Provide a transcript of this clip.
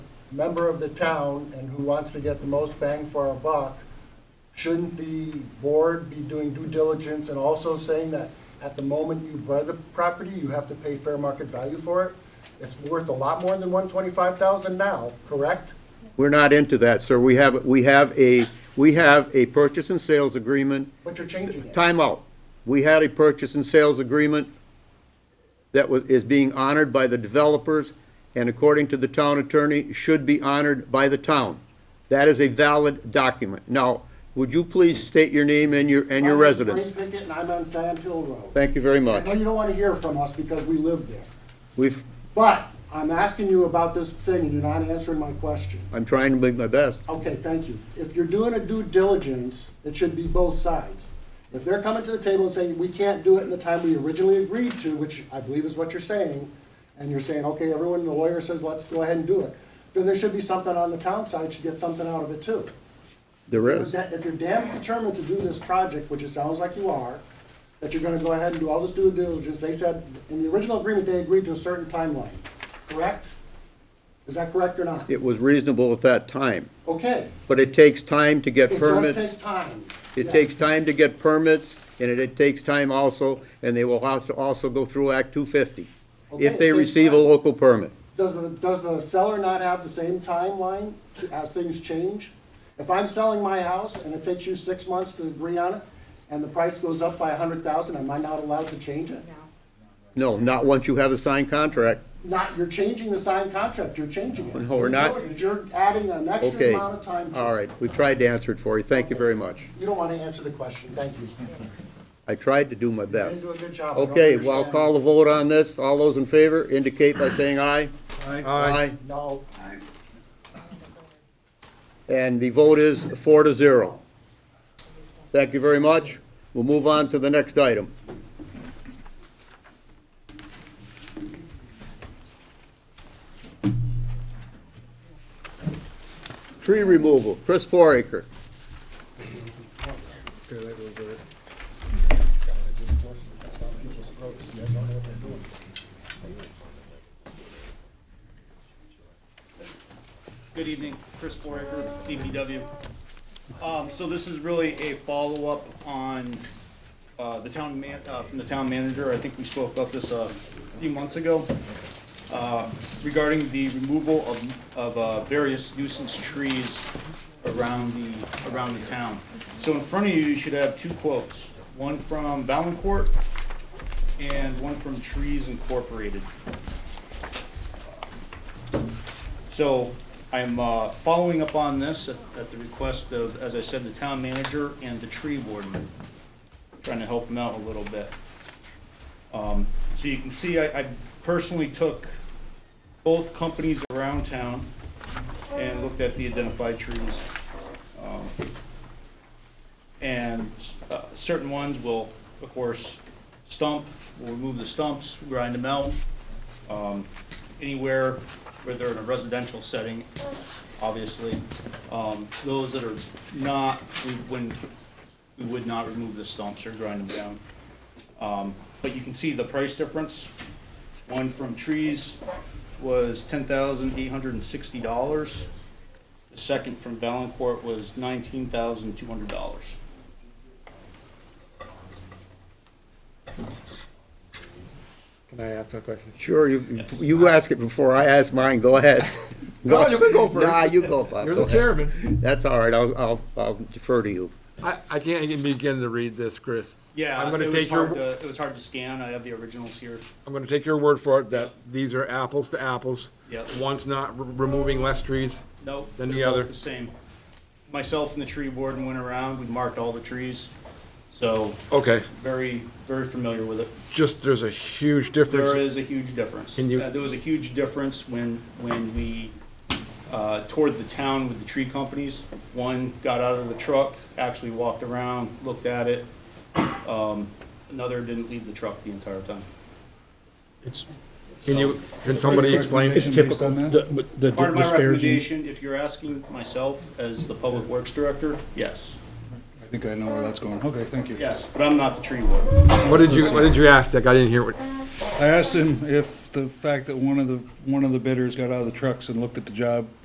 member of the town and who wants to get the most bang for our buck, shouldn't the board be doing due diligence and also saying that at the moment you buy the property, you have to pay fair market value for it? It's worth a lot more than one twenty-five thousand now, correct? We're not into that, sir. We have, we have a, we have a purchase and sales agreement. But you're changing it. Time out. We had a purchase and sales agreement that was, is being honored by the developers, and according to the town attorney, should be honored by the town. That is a valid document. Now, would you please state your name and your, and your My name's Frank residence? Pickett, and I'm on Sand Hill Road. Thank you very I know much. you don't want to hear from us because we live there. We've, But I'm asking you about this thing and you're not answering my question. I'm trying to do my best. Okay, thank you. If you're doing a due diligence, it should be both sides. If they're coming to the table and saying, we can't do it in the time we originally agreed to, which I believe is what you're saying, and you're saying, okay, everyone, the lawyer says, let's go ahead and do it, then there should be something on the town side, should get something out of it too. There If is. you're da- if you're damn determined to do this project, which it sounds like you are, that you're gonna go ahead and do all this due diligence, they said, in the original agreement, they agreed to a certain timeline, correct? Is that correct or not? It was reasonable at that time, Okay. but it takes time to get It permits. does take time. It Yes. takes time to get permits, and it, it takes time also, and they will also, also go through Act two fifty, Okay, if it they takes receive a time. local permit. Does the, does the seller not have the same timeline to- as things change? If I'm selling my house and it takes you six months to agree on it, and the price goes up by a hundred thousand, am I not allowed to change it? No, not once you have a signed contract. Not, you're changing the signed contract, you're changing it. No, we're not. You're adding an extra Okay. amount of time. to- All right, we tried to answer it for you. Thank you very much. You don't want to answer the question, thank you. You I tried to do my didn't best. do a good job. I don't Okay, well, I'll understand. call the vote on this. All those in favor indicate by saying aye. Aye. No, And the vote is four to zero. Thank you very much. We'll move on to the next item. Tree removal, Chris Foraker. Good evening, Chris Foraker, DPW. Um, so this is really a follow-up on, uh, the town man, uh, from the town manager, I think we spoke about this, uh, a few months ago, uh, regarding the removal of, of, uh, various nuisance trees around the, around the town. So in front of you, you should have two quotes, one from Valencourt and one from Trees Incorporated. So I'm uh, following up on this at at the request of, as I said, the town manager and the tree warden, trying to help them out a little bit. Um, So you can see, I I personally took both companies around town and looked at the identified trees. Um, And uh, certain ones will, of course, stump, we'll remove the stumps, grind them out, um, anywhere where they're in a residential setting, obviously. Um, Those that are not, we wouldn't, we would not remove the stumps or grind them down. Um, But you can see the price difference. One from trees was ten thousand eight hundred and sixty dollars. The second from Valencourt was nineteen thousand two hundred dollars. Can I ask a question? Sure, you, you ask it before I ask mine, go ahead. No, you can go first. Nah, you go, Uh, Bob. You're Go the ahead. chairman. That's all right, I'll, I'll, I'll defer to you. I, I can't even begin to read this, Chris. Yeah, I'm it gonna was take your, hard to, it was hard to scan. I have the originals here. I'm gonna take your word for it that these are apples to apples. Yep. One's not re- removing less trees. Nope. Then they're the both other. The same. Myself and the tree warden went around, we marked all the trees, so Okay, very, very familiar with it. just, there's a huge There difference. is a huge difference. Can you- Uh, There was a huge difference when, when we uh, toured the town with the tree companies. One got out of the truck, actually walked around, looked at it. Um, Another didn't leave the truck the entire time. Can you, can somebody explain? It's typical, the the Part of my disparaging. recommendation, if you're asking myself as the public works director, yes, I think I know where that's going. Okay, thank you. yes, but I'm not the tree warden. What did you, what did you ask, Dick? I didn't hear what, I asked him if the fact that one of the, one of the bidders got out of the trucks and looked at the job